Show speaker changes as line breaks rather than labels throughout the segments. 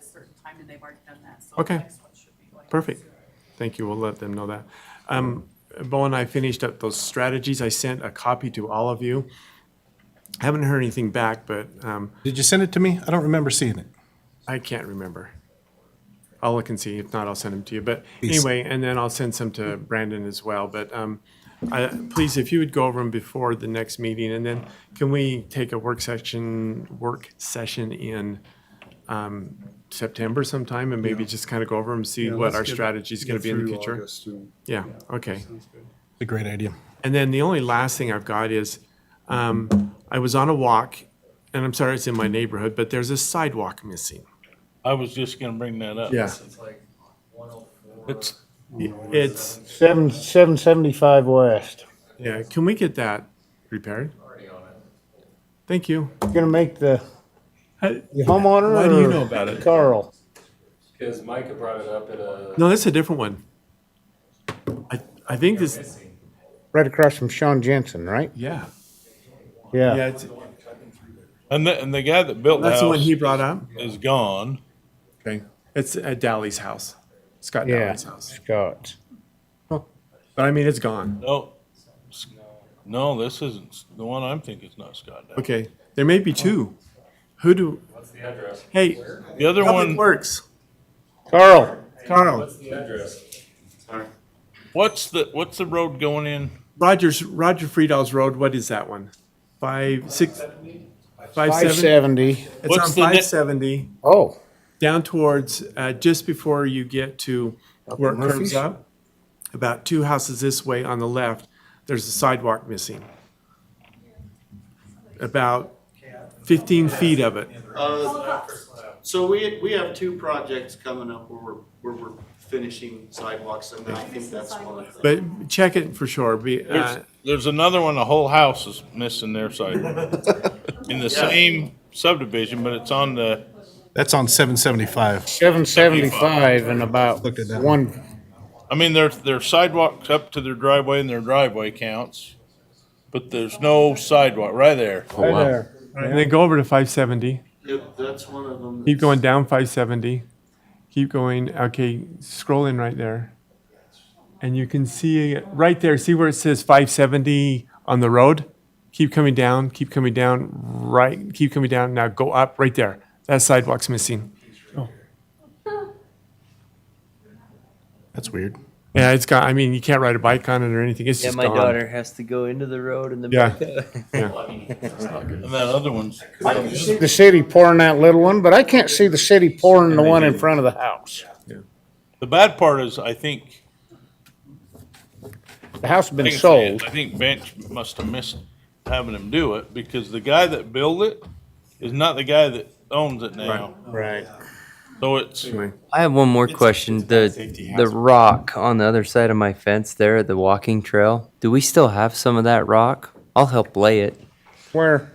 certain time, and they've already done that, so
Okay.
the next one should be going.
Perfect. Thank you. We'll let them know that. Um, Bo and I finished up those strategies. I sent a copy to all of you. I Haven't heard anything back, but um,
Did you send it to me? I don't remember seeing it.
I can't remember. I'll look and see. If not, I'll send them to you. But
Please.
anyway, and then I'll send some to Brandon as well. But um, I, please, if you would go over them before the next meeting, and then can we take a work session work session in um, September sometime, and maybe just kind of go over them, see
Yeah,
what
let's
our
get-
strategy is going
get
to be in the
through
future.
August and-
Yeah. Okay.
Sounds good.
It's a great idea.
And then the only last thing I've got is, um, I was on a walk, and I'm sorry it's in my neighborhood, but there's a sidewalk missing.
I was just gonna bring that up.
Yeah.
It's like one oh four.
It's,
It's,
Seven, seven seventy-five west.
yeah, can we get that repaired?
Already on it.
Thank you.
Gonna make the
Hey,
the homeowner
why do you know
about it? Carl?
Cause Micah brought it up at a.
No, that's a different one. I, I think
They're
this,
missing.
Right across from Sean Jensen, right?
yeah, yeah,
Yeah.
it's,
and the, and the guy that built the
that's the one
house
he brought up.
is gone.
Okay. It's at Dally's house, Scott
Yeah,
Dally's house.
Scott.
But I mean, it's gone.
No, s- no, this isn't, the one I'm thinking is not Scott. Dow.
Okay, there may be two. Who do,
What's the address?
hey,
The other
Public
one,
Works,
Carl,
Carl,
What's the address? Sorry.
what's the, what's the road going in?
Rogers, Roger Friedal's Road, what is that one? Five, six, five,
five
seven?
seventy.
It's on
What's the ne-
five seventy,
Oh,
down towards, uh, just before you get to where it curves
Murphy's?
up. About two houses this way on the left, there's a sidewalk missing. About fifteen feet of it.
Uh, So we, we have two projects coming up where we're, where we're finishing sidewalks and I think that's one of them.
But check it for sure, be, uh,
There's, there's another one, the whole house is missing their side. In the same subdivision, but it's on the,
That's on seven seventy-five.
seven seventy-five and about one,
I mean, their, their sidewalks up to their driveway and their driveway counts. But there's no sidewalk right there.
right there.
and then go over to five seventy.
Yep, that's one of them.
Keep going down five seventy. Keep going, okay, scroll in right there. And you can see, it right there, see where it says five seventy on the road? Keep coming down, keep coming down, right, keep coming down, now go up, right there. That sidewalk's missing.
That's weird.
Yeah, it's got, I mean, you can't ride a bike on it or anything, it's
Yeah,
just
my
gone.
daughter has to go into the road and then
Yeah.
back out.
And that other one's,
The city pouring that little one, but I can't see the city pouring the one in front of the house.
the bad part is, I think,
The house has been
think so.
sold.
I think Bench must have missed having him do it because the guy that built it is not the guy that owns it now.
Right.
So it's,
Anyway,
I have one more question.
safety
The the
hazard.
rock on the other side of my fence there at the walking trail. Do we still have some of that rock? I'll help lay it
Where?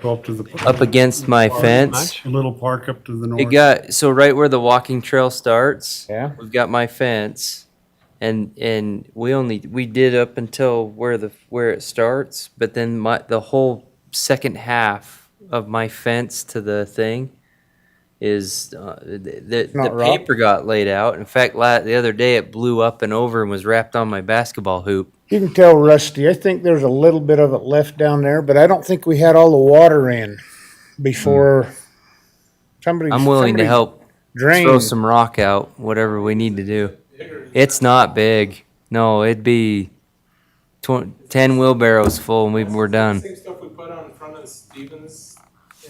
Go up to the
up against my fence.
little park up to the north.
It got so right where the walking trail starts.
Yeah.
We've got my fence, and and we only we did up until where the where it starts, but then my the whole second half of my fence to the thing is uh, the the, the
Not rock?
paper got laid out. In fact, la- the other day it blew up and over and was wrapped on my basketball hoop.
You can tell Rusty, I think there's a little bit of it left down there, but I don't think we had all the water in before somebody.
I'm willing to
somebody
help throw
Drain.
some rock out, whatever we need to do. It's not big. No, it'd be tw- 10 wheelbarrows full and we were done.
Same stuff we put on in front of Stevens.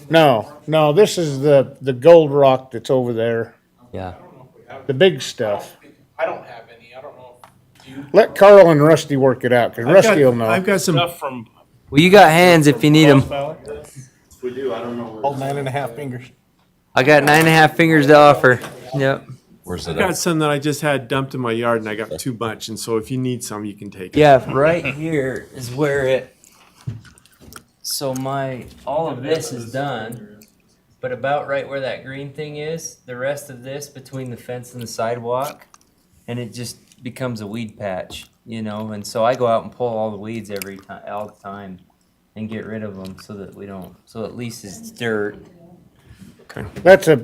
No, no, this is the, the gold rock that's over there,
Yeah.
I don't know if we have,
the big stuff.
I don't have any, I don't know. if you-
Let Carl and Rusty work it out,
I've
cause
got-
Rusty will know.
I've got some,
stuff from
Well, you got hands if you need them.
If we do, I don't know where.
All nine and a half fingers.
I got nine and a half fingers to offer. Yep.
Where's
I've
it
got
at?
some that I just had dumped in my yard and I got too much, and so if you need some, you can take it.
Yeah, right here is where it. So my, all of this is done, but about right where that green thing is, the rest of this between the fence and the sidewalk, and it just becomes a weed patch, you know, and so I go out and pull all the weeds every time, all the time. And get rid of them so that we don't, so at least it's dirt.
That's a,